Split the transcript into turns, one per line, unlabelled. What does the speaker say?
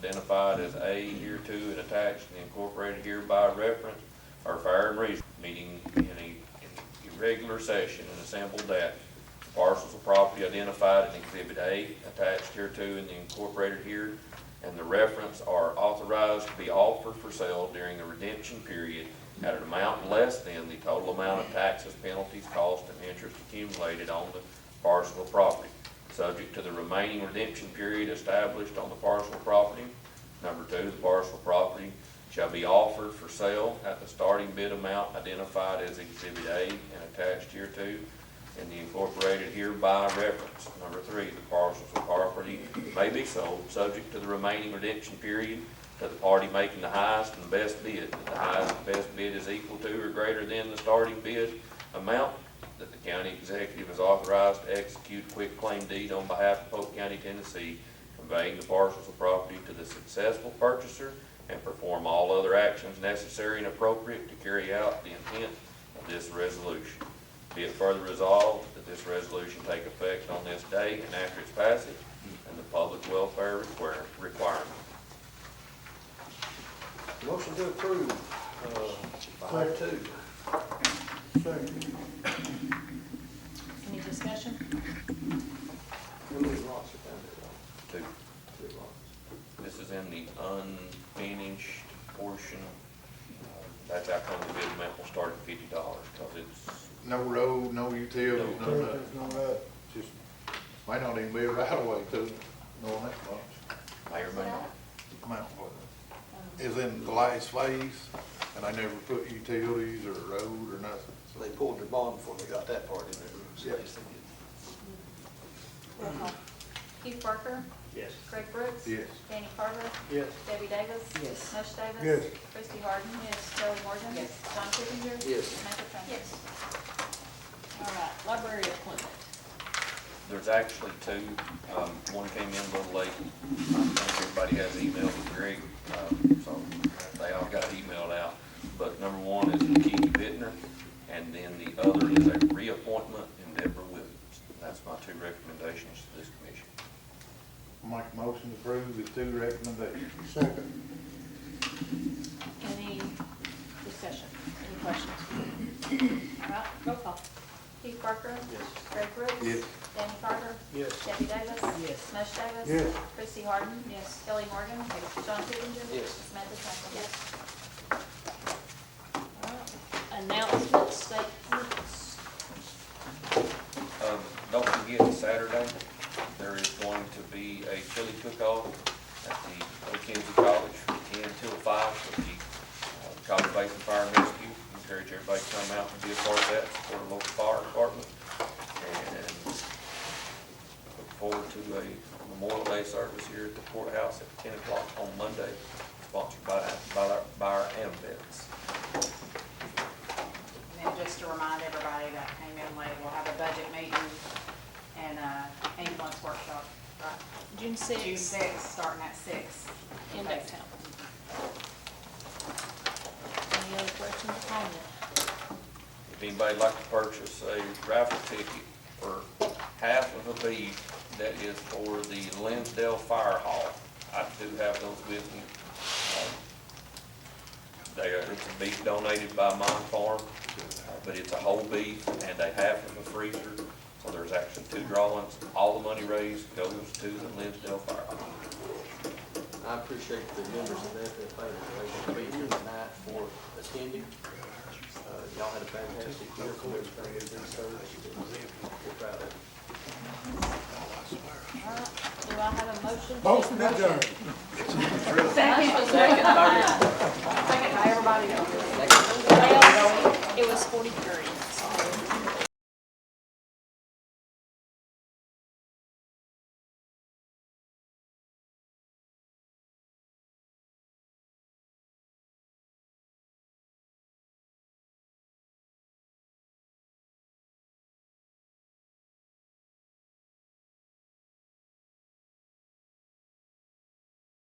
identified as A hereto and attached and incorporated hereby reference are fair and reasonable, meaning in a, in irregular session and assembled that parcels of property identified in exhibit A attached hereto and incorporated here, and the reference are authorized to be offered for sale during the redemption period at an amount less than the total amount of taxes, penalties, costs, and interest accumulated on the parcel of property subject to the remaining redemption period established on the parcel of property. Number two, the parcel of property shall be offered for sale at the starting bid amount identified as Exhibit A and attached hereto, and the incorporated hereby reference. Number three, the parcels of property may be sold, subject to the remaining redemption period, to the party making the highest and best bid. If the highest and best bid is equal to or greater than the starting bid amount, that the county executive is authorized to execute quick claim deed on behalf of Polk County, Tennessee, conveying the parcels of property to the successful purchaser and perform all other actions necessary and appropriate to carry out the intent of this resolution. Be it further resolved that this resolution take effect on this day and after its passage and the public welfare require, requirement.
Motion to approve, uh, five two. Second.
Any discussion?
We'll leave lots of time
Two,
to do lots.
this is in the unfinished portion. Uh, That's how come the bid amount will start at fifty dollars, cause it's
No road, no utilities, no nothing.
Everything's not right.
Just, may not even be a right of way to it, no, that much.
mayor may not.
Amount of it Is in the last phase, and I never put utilities or road or nothing,
So they pulled their bond before they got that part in there.
Yep.
Roll call.
Keith Parker,
Yes.
Greg Brooks.
Yes.
Danny Carver,
Yes.
Debbie Davis.
Yes.
mush Davis.
Yes.
Christie Harden. Yes. Joey Morgan.
Yes.
John Kipinger.
Yes.
Samantha Trent. Yes.
All right, library appointment.
There's actually two, um, one came in a little late, I think everybody has email with Greg, um, so they all got emailed out. But number one is Keith Bittner, and then the other is a reappointment in Deborah Williams. That's my two recommendations to this commission.
make a motion to approve with two recommendations.
Second.
Any discussion? Any questions? All right, roll call.
Keith Parker.
Yes.
Greg Brooks.
Yes.
Danny Carver,
Yes.
Debbie Davis.
Yes.
mush Davis.
Yes.
Christie Harden. Yes. Kelly Morgan. John Kipinger.
Yes.
Samantha Trent. Yes.
All right. Announcements, statements.
Um, don't forget, Saturday, there is going to be a chili cook-off at the Mackenzie College from ten till five with the uh, College Basin Fire and Rescue. Encourage everybody to come out and be a part of that, support the local fire department. And look forward to a Memorial Day service here at the courthouse at ten o'clock on Monday, sponsored by, by our, by our AMVets.
And then just to remind everybody that came in late, we'll have a budget meeting and a ambulance workshop, right?
June
June
sixth,
sixth, starting at six.
in Ducktown. Any other questions or comments?
If anybody'd like to purchase a raffle ticket for half of a bead, that is for the Lansdale Fire Hall. I do have those with me. Um, They are, it's a bead donated by Mine Farm, uh, but it's a whole bead and a half of a freezer. So there's actually two drawings. All the money raised goes to the Lansdale Fire Hall.
I appreciate the members of the FFA that were able to be here tonight for attending. Uh, Y'all had a fantastic year, so it's been a good service. We're proud of it.
All right, do I have a motion? to-
Motion adjourned.
Motion to-
Second, by everybody else.
Well, It was forty-three.